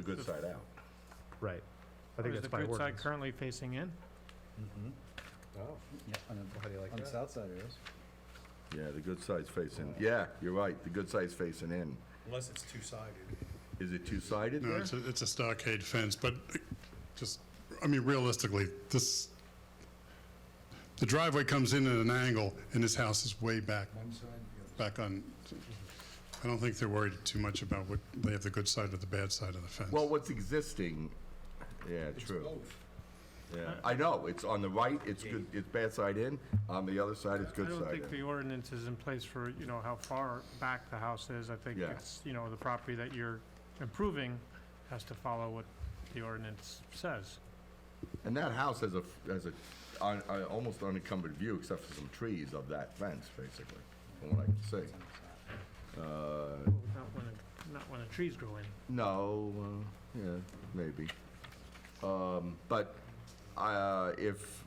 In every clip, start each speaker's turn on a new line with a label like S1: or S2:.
S1: good side out.
S2: right. I think
S3: Is
S2: that's
S3: the
S2: by
S3: good side
S2: ordinance.
S3: currently facing in?
S2: Oh,
S4: Yeah, on the,
S2: how do you like
S4: on the
S2: that?
S4: south side it is.
S1: Yeah, the good side's facing, yeah, you're right, the good side's facing in.
S5: Unless it's two-sided.
S1: Is it two-sided
S6: No,
S1: there?
S6: it's a, it's a stockade fence, but just, I mean, realistically, this, the driveway comes in at an angle, and this house is way back,
S4: One side, the other.
S6: back on, I don't think they're worried too much about what, they have the good side or the bad side of the fence.
S1: Well, what's existing, yeah, true. Yeah, I know, it's on the right, it's good, it's bad side in, on the other side, it's
S3: I
S1: good
S3: don't
S1: side
S3: think
S1: in.
S3: the ordinance is in place for, you know, how far back the house is. I think
S1: Yeah.
S3: it's, you know, the property that you're improving has to follow what the ordinance says.
S1: And that house has a, f- has a, on, on, almost unencumbered view, except for some trees of that fence, basically, from what I can see. Uh,
S3: Not when, the- not when the trees grow in.
S1: no, uh, yeah, maybe. Um, but, uh, if,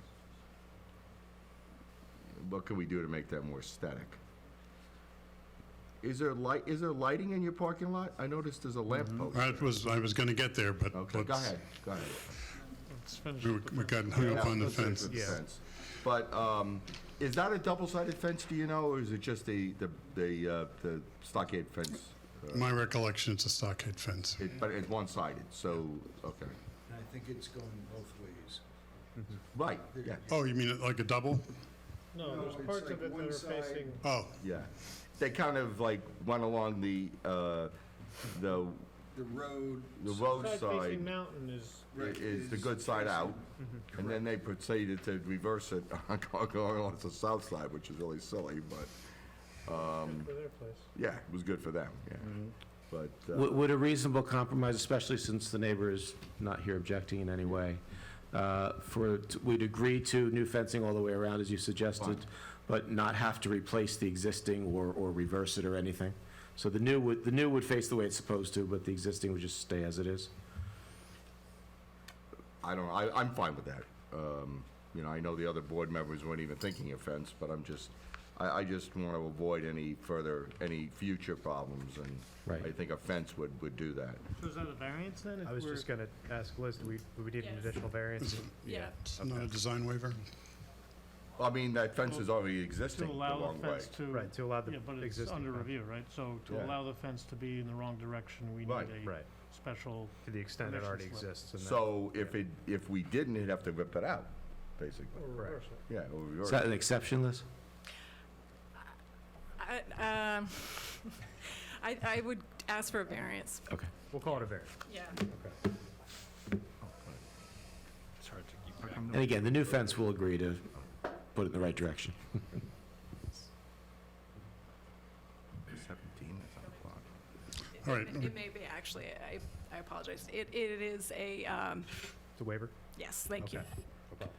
S1: what can we do to make that more aesthetic? Is there light, is there lighting in your parking lot? I noticed there's a lamp post.
S6: I was, I was gonna get there, but
S1: Okay, go
S6: Mm-hmm. let's-
S1: ahead, go ahead.
S3: Let's finish
S6: We
S3: with
S6: were-
S3: the
S6: we
S3: fence.
S6: got hung up
S1: Yeah,
S6: on the
S1: let's stick
S6: fence.
S1: with the
S2: Yeah.
S1: fence. But um, is that a double-sided fence, do you know, or is it just the, the, the uh, the stockade fence? Uh,
S6: My recollection, it's a stockade fence.
S1: it- But it's one-sided, so, okay.
S4: And I think it's going both ways.
S1: Right, yeah,
S6: Oh, you mean it like a double?
S3: No,
S4: No,
S3: there's
S4: it's
S3: parts
S4: like
S3: of it that
S4: one
S3: are
S4: side-
S3: facing,
S6: Oh,
S1: yeah. They kind of like went along the, uh, the,
S4: The road.
S1: the
S3: side
S1: roadside
S3: facing mountain is,
S1: i-
S4: right,
S1: is the good side out, and then they proceeded to reverse it going on to the south side, which is really silly, but,
S3: good for their place.
S1: yeah, it was good for them, yeah. But, uh,
S7: Would would a reasonable compromise, especially since the neighbor is not here objecting in any way, uh, for, we'd agree to new fencing all the way around, as you suggested, but not have to replace the existing or, or reverse it or anything? So the new would, the new would face the way it's supposed to, but the existing would just stay as it is?
S1: I don't, I, I'm fine with that. Um, you know, I know the other board members weren't even thinking of fence, but I'm just, I, I just want to avoid any further, any future problems, and
S7: Right.
S1: I think a fence would, would do that.
S3: So is that a variance then? if
S2: I was
S3: we're-
S2: just gonna ask Liz, do we, do we need an
S8: Yes.
S2: additional variance?
S8: Yeah.
S6: not a design waiver?
S1: I mean, that fence is already
S3: To
S1: existing the
S3: allow
S1: long
S3: the
S1: way.
S3: fence to.
S2: Right, to allow the
S3: Yeah, but it's
S2: existing.
S3: under
S2: fence.
S3: review, right? So
S1: Yeah.
S3: to allow the fence to be in the wrong direction, we
S1: Right.
S3: need a
S2: Right,
S3: special,
S2: to the extent it
S3: Permission
S2: already
S3: slip.
S2: exists. and that-
S1: So if it, if we didn't, he'd have to rip it out, basically.
S3: or
S2: Correct.
S3: reverse it.
S1: Yeah. or
S7: Is
S1: reverse
S7: that
S1: it.
S7: an exception, Liz?
S8: I, um, I, I would ask for a variance.
S7: Okay.
S2: We'll call it a variance.
S8: Yeah.
S5: It's hard to keep track.
S7: And again, the new fence will agree to put it in the right direction.
S1: Seventeen, that's on the clock.
S6: All right.
S8: It may be, actually, I, I apologize. It, it is a, um,
S2: It's a waiver?
S8: yes, thank you.
S2: Okay.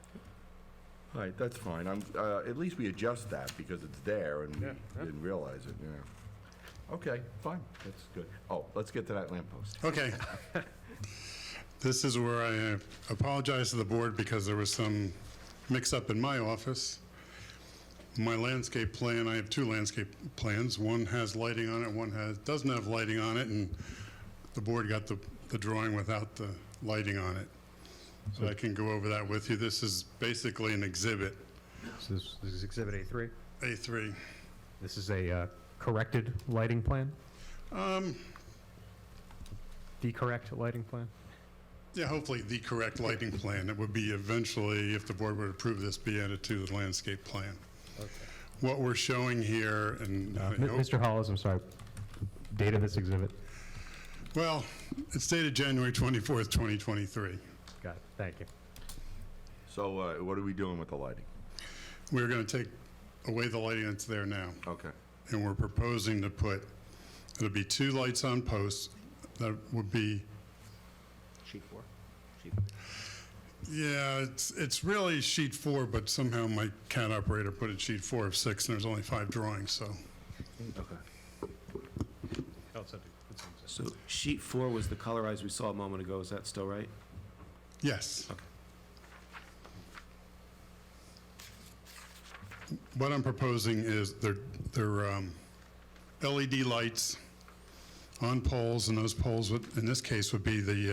S1: All right, that's fine. I'm, uh, at least we adjust that because it's there and we
S2: Yeah, yeah.
S1: didn't realize it, yeah. Okay, fine, that's good. Oh, let's get to that lamppost.
S6: Okay. This is where I uh, apologize to the board because there was some mix-up in my office. My landscape plan, I have two landscape plans. One has lighting on it, one has, doesn't have lighting on it, and the board got the, the drawing without the lighting on it. So I can go over that with you. This is basically an exhibit,
S2: So this this is Exhibit A3.
S6: A3.
S2: This is a uh, corrected lighting plan,
S6: Um,
S2: the correct lighting plan?
S6: Yeah, hopefully the correct lighting plan. It would be eventually, if the board would approve this, be added to the landscape plan. What we're showing here, and, I
S2: Uh, Mi-
S6: hope-
S2: Mr. Hollis, I'm sorry, date of this exhibit?
S6: well, it's dated January 24th, 2023.
S2: Got it, thank you.
S1: So uh, what are we doing with the lighting?
S6: We're going to take away the lighting that's there now,
S1: Okay.
S6: and we're proposing to put, it'll be two lights on posts. That would be,
S7: Sheet four.
S6: yeah, it's, it's really sheet four, but somehow my CAD operator put it sheet four of six, and there's only five drawings, so.
S1: Okay.
S7: So sheet four was the colorized we saw a moment ago, is that still right?
S6: Yes. What I'm proposing is they're, they're um, E LED lights on poles, and those poles would, in this case, would be the uh,